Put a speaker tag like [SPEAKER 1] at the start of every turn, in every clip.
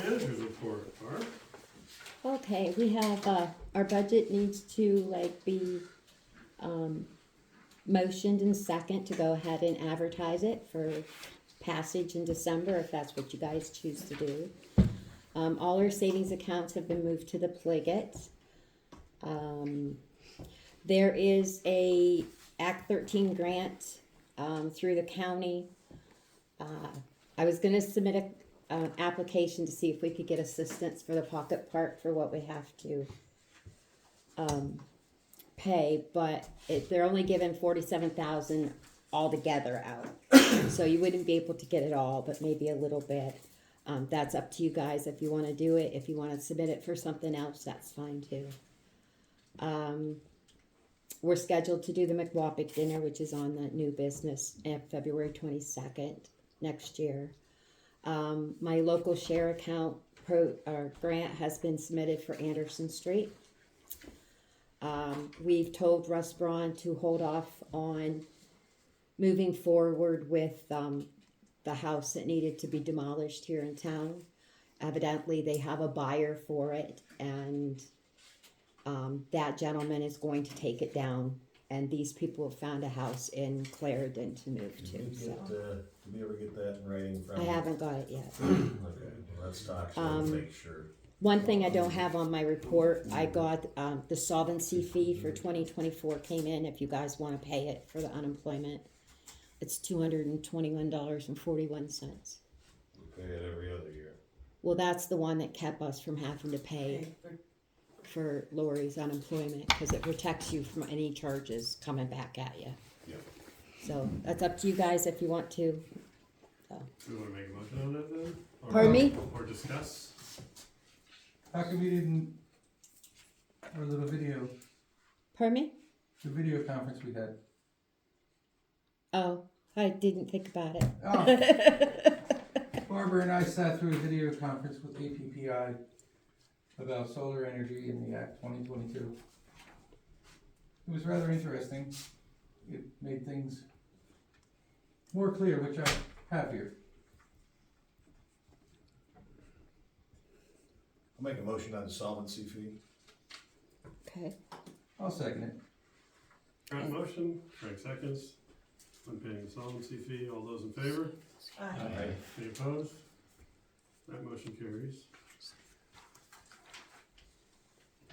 [SPEAKER 1] for Barb?
[SPEAKER 2] Okay, we have, uh, our budget needs to like be, um, motioned and second to go ahead and advertise it for passage in December, if that's what you guys choose to do. Um, all our savings accounts have been moved to the Pliget. Um, there is a Act thirteen grant, um, through the county. Uh, I was gonna submit a uh, application to see if we could get assistance for the pocket park for what we have to um, pay, but it, they're only giving forty-seven thousand altogether out. So you wouldn't be able to get it all, but maybe a little bit. Um, that's up to you guys if you wanna do it, if you wanna submit it for something else, that's fine too. Um, we're scheduled to do the McWapic dinner, which is on the new business, uh, February twenty-second next year. Um, my local share account pro, or grant has been submitted for Anderson Street. Um, we've told Russ Braun to hold off on moving forward with, um, the house that needed to be demolished here in town. Evidently, they have a buyer for it and, um, that gentleman is going to take it down. And these people have found a house in Clarendon to move to,
[SPEAKER 3] Did we
[SPEAKER 2] so.
[SPEAKER 3] get, uh, did we ever get that in writing from?
[SPEAKER 2] I haven't got it yet.
[SPEAKER 3] Okay, well, let's talk to them,
[SPEAKER 2] Um,
[SPEAKER 3] make sure.
[SPEAKER 2] One thing I don't have on my report, I got, um, the solvency fee for twenty twenty-four came in, if you guys wanna pay it for the unemployment. It's two hundred and twenty-one dollars and forty-one cents.
[SPEAKER 3] We pay it every other year.
[SPEAKER 2] Well, that's the one that kept us from having to pay for Lori's unemployment, cause it protects you from any charges coming back at you.
[SPEAKER 3] Yep.
[SPEAKER 2] So, that's up to you guys if you want to.
[SPEAKER 1] Do you wanna make a motion on that then? Or-
[SPEAKER 2] Pardon me?
[SPEAKER 1] Or discuss?
[SPEAKER 4] How come we didn't our little video
[SPEAKER 2] Pardon me?
[SPEAKER 4] the video conference we had?
[SPEAKER 2] Oh, I didn't think about it.
[SPEAKER 4] Oh. Barbara and I sat through a video conference with APPI about solar energy in the Act twenty twenty two. It was rather interesting. It made things more clear, which I have here.
[SPEAKER 3] I'll make a motion on the solvency fee.
[SPEAKER 2] Okay.
[SPEAKER 4] I'll second it.
[SPEAKER 1] Grant motion, Frank seconds. On paying the solvency fee, all those in favor?
[SPEAKER 3] Aye.
[SPEAKER 1] Any opposed? That motion carries.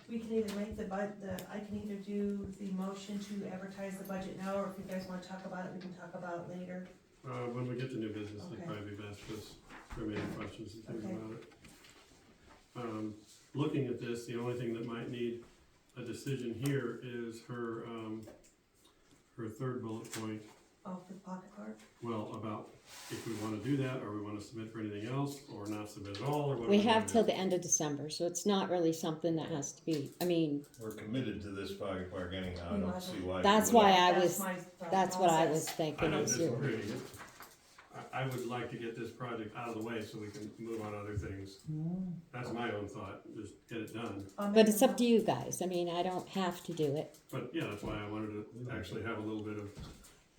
[SPEAKER 5] We can either make the bud, the, I can either do the motion to advertise the budget now, or if you guys wanna talk about it, we can talk about it later.
[SPEAKER 1] Uh, when we get to new business, it'd
[SPEAKER 5] Okay.
[SPEAKER 1] probably be best because there may be questions and things
[SPEAKER 5] Okay.
[SPEAKER 1] about it. Um, looking at this, the only thing that might need a decision here is her, um, her third bullet point,
[SPEAKER 5] Oh, for the pocket park?
[SPEAKER 1] well, about if we wanna do that, or we wanna submit for anything else, or not submit at all, or what.
[SPEAKER 2] We
[SPEAKER 1] wanna
[SPEAKER 2] have
[SPEAKER 1] do.
[SPEAKER 2] till the end of December, so it's not really something that has to be, I mean,
[SPEAKER 3] We're committed to this fire park anyhow, I
[SPEAKER 5] We
[SPEAKER 3] don't
[SPEAKER 5] might
[SPEAKER 3] see
[SPEAKER 5] as
[SPEAKER 3] why.
[SPEAKER 2] That's
[SPEAKER 3] we wouldn't.
[SPEAKER 2] why I
[SPEAKER 5] That's
[SPEAKER 2] was-
[SPEAKER 5] my thought
[SPEAKER 2] that's what I was
[SPEAKER 5] process.
[SPEAKER 1] I
[SPEAKER 2] thinking
[SPEAKER 1] don't
[SPEAKER 2] was you.
[SPEAKER 1] disagree. I, I would like to get this project out of the way so we can move on other things. That's my own thought, just get it done.
[SPEAKER 5] I'll
[SPEAKER 2] But
[SPEAKER 5] make
[SPEAKER 2] it's
[SPEAKER 5] a
[SPEAKER 2] up to you guys, I mean, I don't have to do it.
[SPEAKER 1] But yeah, that's why I wanted to actually have a little bit of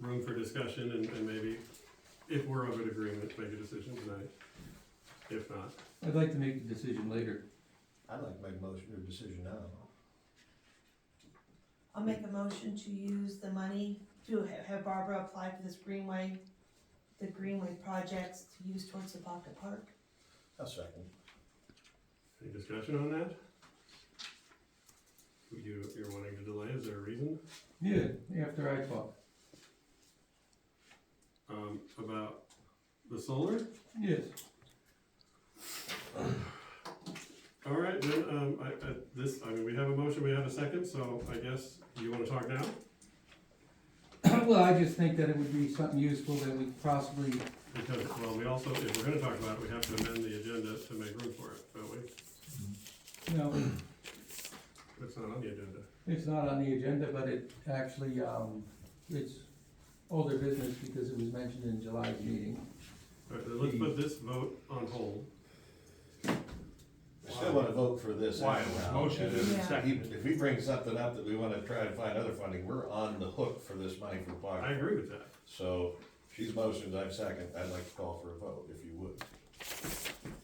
[SPEAKER 1] room for discussion and, and maybe if we're of an agreement, make a decision tonight. If not,
[SPEAKER 4] I'd like to make the decision later.
[SPEAKER 3] I'd like to make a motion or decision now.
[SPEAKER 5] mo- I'll make a motion to use the money to ha- have Barbara apply for this Greenway, the Greenway projects to use towards the pocket park.
[SPEAKER 3] I'll second.
[SPEAKER 1] any discussion on that? You, you're wanting to delay, is there a reason,
[SPEAKER 4] Yeah, after I talk.
[SPEAKER 1] um, about the solar?
[SPEAKER 4] Yes.
[SPEAKER 1] All right, then, um, I, I, this, I mean, we have a motion, we have a second, so I guess you wanna talk now?
[SPEAKER 4] well, I just think that it would be something useful that we could possibly
[SPEAKER 1] Because, well, we also, if we're gonna talk about it, we have to amend the agenda to make room for it, don't we?
[SPEAKER 4] No,
[SPEAKER 1] It's not on the agenda.
[SPEAKER 4] it's not on the agenda, but it actually, um, it's older business because it was mentioned in July's meeting.
[SPEAKER 1] All right, then let's put this vote on hold.
[SPEAKER 3] I still wanna vote for this
[SPEAKER 6] Why?
[SPEAKER 3] anyhow.
[SPEAKER 6] Motion
[SPEAKER 3] and
[SPEAKER 6] is
[SPEAKER 5] Yeah.
[SPEAKER 3] If he-
[SPEAKER 6] seconded.
[SPEAKER 3] if we bring something up that we wanna try and find other funding, we're on the hook for this money for fire.
[SPEAKER 1] I agree with that.
[SPEAKER 3] So she's motioned, I'm second. I'd like to call for a vote, if you would.